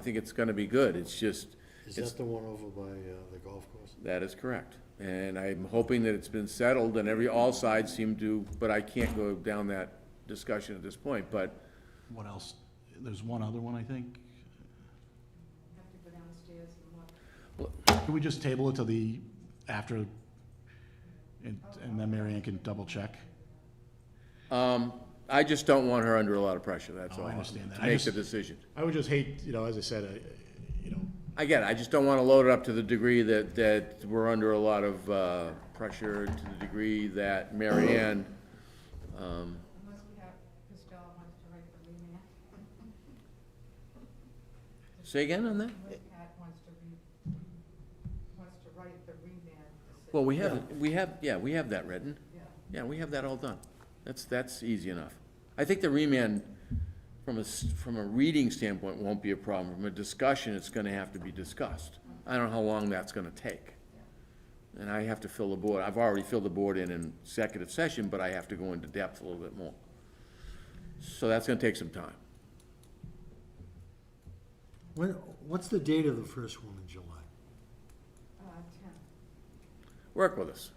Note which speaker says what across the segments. Speaker 1: think it's gonna be good, it's just,
Speaker 2: Is
Speaker 1: it's-
Speaker 2: that the one over by uh, the golf course?
Speaker 1: that is correct. And I'm hoping that it's been settled and every, all sides seem to, but I can't go down that discussion at this point, but
Speaker 3: What else? There's one other one, I think.
Speaker 4: Have to go downstairs and look.
Speaker 3: Can we just table it to the, after, and, and then Mary Ann can double check?
Speaker 1: Um, I just don't want her under a lot of pressure, that's
Speaker 3: Oh, I
Speaker 1: all.
Speaker 3: understand that.
Speaker 1: To
Speaker 3: I
Speaker 1: make
Speaker 3: just-
Speaker 1: the decision.
Speaker 3: I would just hate, you know, as I said, I- you know,
Speaker 1: Again, I just don't want to load it up to the degree that, that we're under a lot of, uh, pressure, to the degree that Mary Ann, um,
Speaker 4: Unless we have, Costello wants to write the remand,
Speaker 1: say again on that?
Speaker 4: unless Pat wants to re, wants to write the remand. decision.
Speaker 1: Well, we have, we have, yeah, we have that written.
Speaker 4: Yeah.
Speaker 1: Yeah, we have that all done. That's, that's easy enough. I think the remand, from a, s- from a reading standpoint, won't be a problem. From a discussion, it's gonna have to be discussed. I don't know how long that's gonna take. And I have to fill the board, I've already filled the board in in executive session, but I have to go into depth a little bit more. So that's gonna take some time.
Speaker 2: When, what's the date of the first one in July?
Speaker 4: Uh, ten,
Speaker 1: Work with us.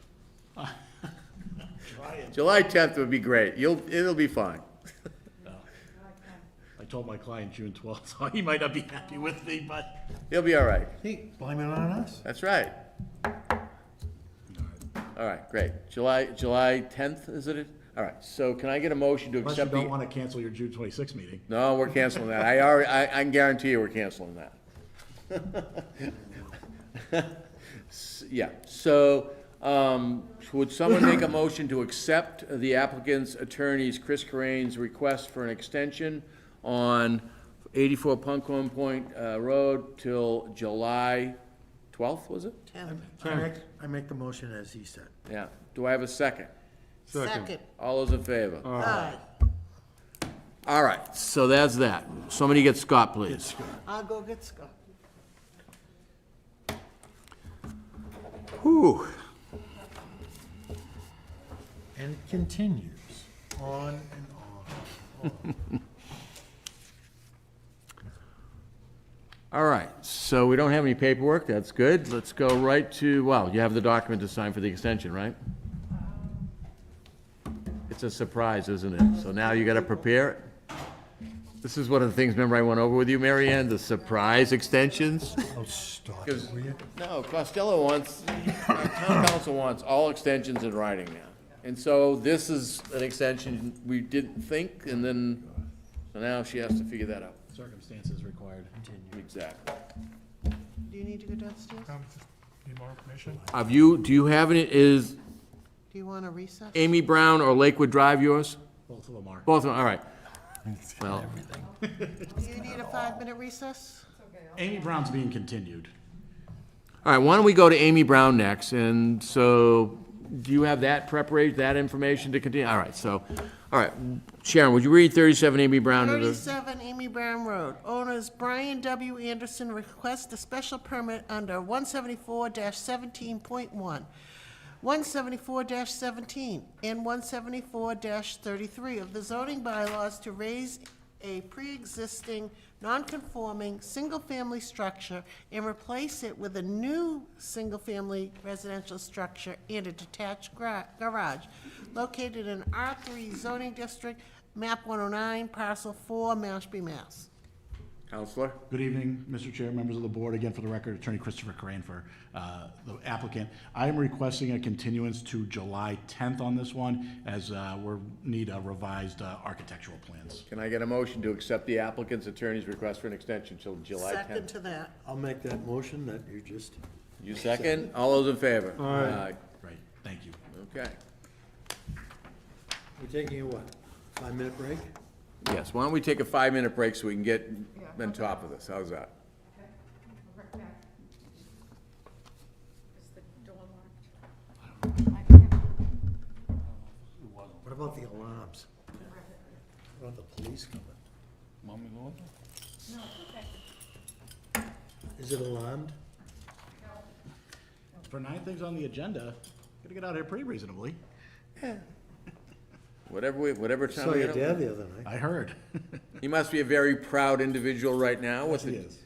Speaker 1: July tenth would be great. You'll, it'll be fine.
Speaker 4: July ten.
Speaker 3: I told my client June twelfth, so he might not be happy with me, but.
Speaker 1: You'll be all right.
Speaker 2: Hey, blame it on us.
Speaker 1: That's right. All right, great. July, July tenth, is it? All right, so can I get a motion to
Speaker 3: Unless you
Speaker 1: accept
Speaker 3: don't
Speaker 1: the?
Speaker 3: wanna cancel your June twenty-sixth meeting.
Speaker 1: No, we're canceling that. I already, I, I can guarantee you we're canceling that. S- Yeah, so, um, would someone make a motion to accept the applicant's attorney's Chris Corain's request for an extension on eighty-four Punkhorn Point, uh, Road till July twelfth, was it?
Speaker 5: I make, I make the motion as he said.
Speaker 1: Yeah. Do I have a second?
Speaker 5: Second.
Speaker 1: All those in
Speaker 2: Uh,
Speaker 1: favor?
Speaker 5: Aye.
Speaker 1: All right, so that's that. Somebody get Scott, please.
Speaker 5: I'll go get Scott.
Speaker 1: Whew.
Speaker 2: And it continues on and on.
Speaker 1: All right, so we don't have any paperwork, that's good. Let's go right to, well, you have the document to sign for the extension, right? It's a surprise, isn't it? So now you gotta prepare it? This is one of the things, remember I went over with you, Mary Ann, the surprise extensions?
Speaker 2: Oh, stop
Speaker 1: Gives-
Speaker 2: it, will you?
Speaker 1: No, Costello wants, our town council wants all extensions in writing now. And so this is an extension we didn't think, and then, so now she has to figure that out.
Speaker 3: Circumstances required.
Speaker 1: Exactly.
Speaker 5: Do you need to go downstairs?
Speaker 6: Um, just Need more information?
Speaker 1: Have you, do you have any, is
Speaker 5: Do you want to recess?
Speaker 1: Amy Brown or Lakewood Drive yours?
Speaker 3: Both of them are.
Speaker 1: Both of them, all right. Well,
Speaker 5: Do you need a five-minute recess?
Speaker 3: Amy Brown's being continued.
Speaker 1: all right, why don't we go to Amy Brown next? And so, do you have that preparation, that information to continue? All right, so, all right. Sharon, would you read thirty-seven Amy Brown? to the-
Speaker 5: 37 Amy Brown Road. Owners Brian W. Anderson request a special permit under 174-17.1, 174-17, and 174-33 of the zoning bylaws to raise a pre-existing, non-conforming, single-family structure and replace it with a new single-family residential structure and a detached gra- garage located in R3 zoning district, map 109, parcel 4, Mashpee, Mass.
Speaker 1: Counselor?
Speaker 3: Good evening, Mr. Chair, members of the board. Again, for the record, Attorney Christopher Corain for uh, the applicant. I am requesting a continuance to July 10th on this one, as uh, we're, need uh, revised uh, architectural plans.
Speaker 1: Can I get a motion to accept the applicant's attorney's request for an extension till July
Speaker 5: Second
Speaker 1: 10th?
Speaker 5: to that.
Speaker 2: I'll make that motion that you just.
Speaker 1: You second? All those in favor? Aye.
Speaker 3: Right, thank you.
Speaker 1: Okay.
Speaker 2: We're taking a what, five-minute break?
Speaker 1: Yes, why don't we take a five-minute break so we can get on top of this? How's that?
Speaker 4: We'll work back. Is the door locked? I can't-
Speaker 2: What about the alarms? What about the police coming?
Speaker 4: No, it's okay.
Speaker 2: Is it alarmed?
Speaker 3: For nine things on the agenda, gotta get out of here pretty reasonably.
Speaker 1: Whatever we, whatever time.
Speaker 2: Saw
Speaker 1: we
Speaker 2: your
Speaker 1: get up-
Speaker 2: dad the other night.
Speaker 3: I heard.
Speaker 1: He must be a very proud individual right now with the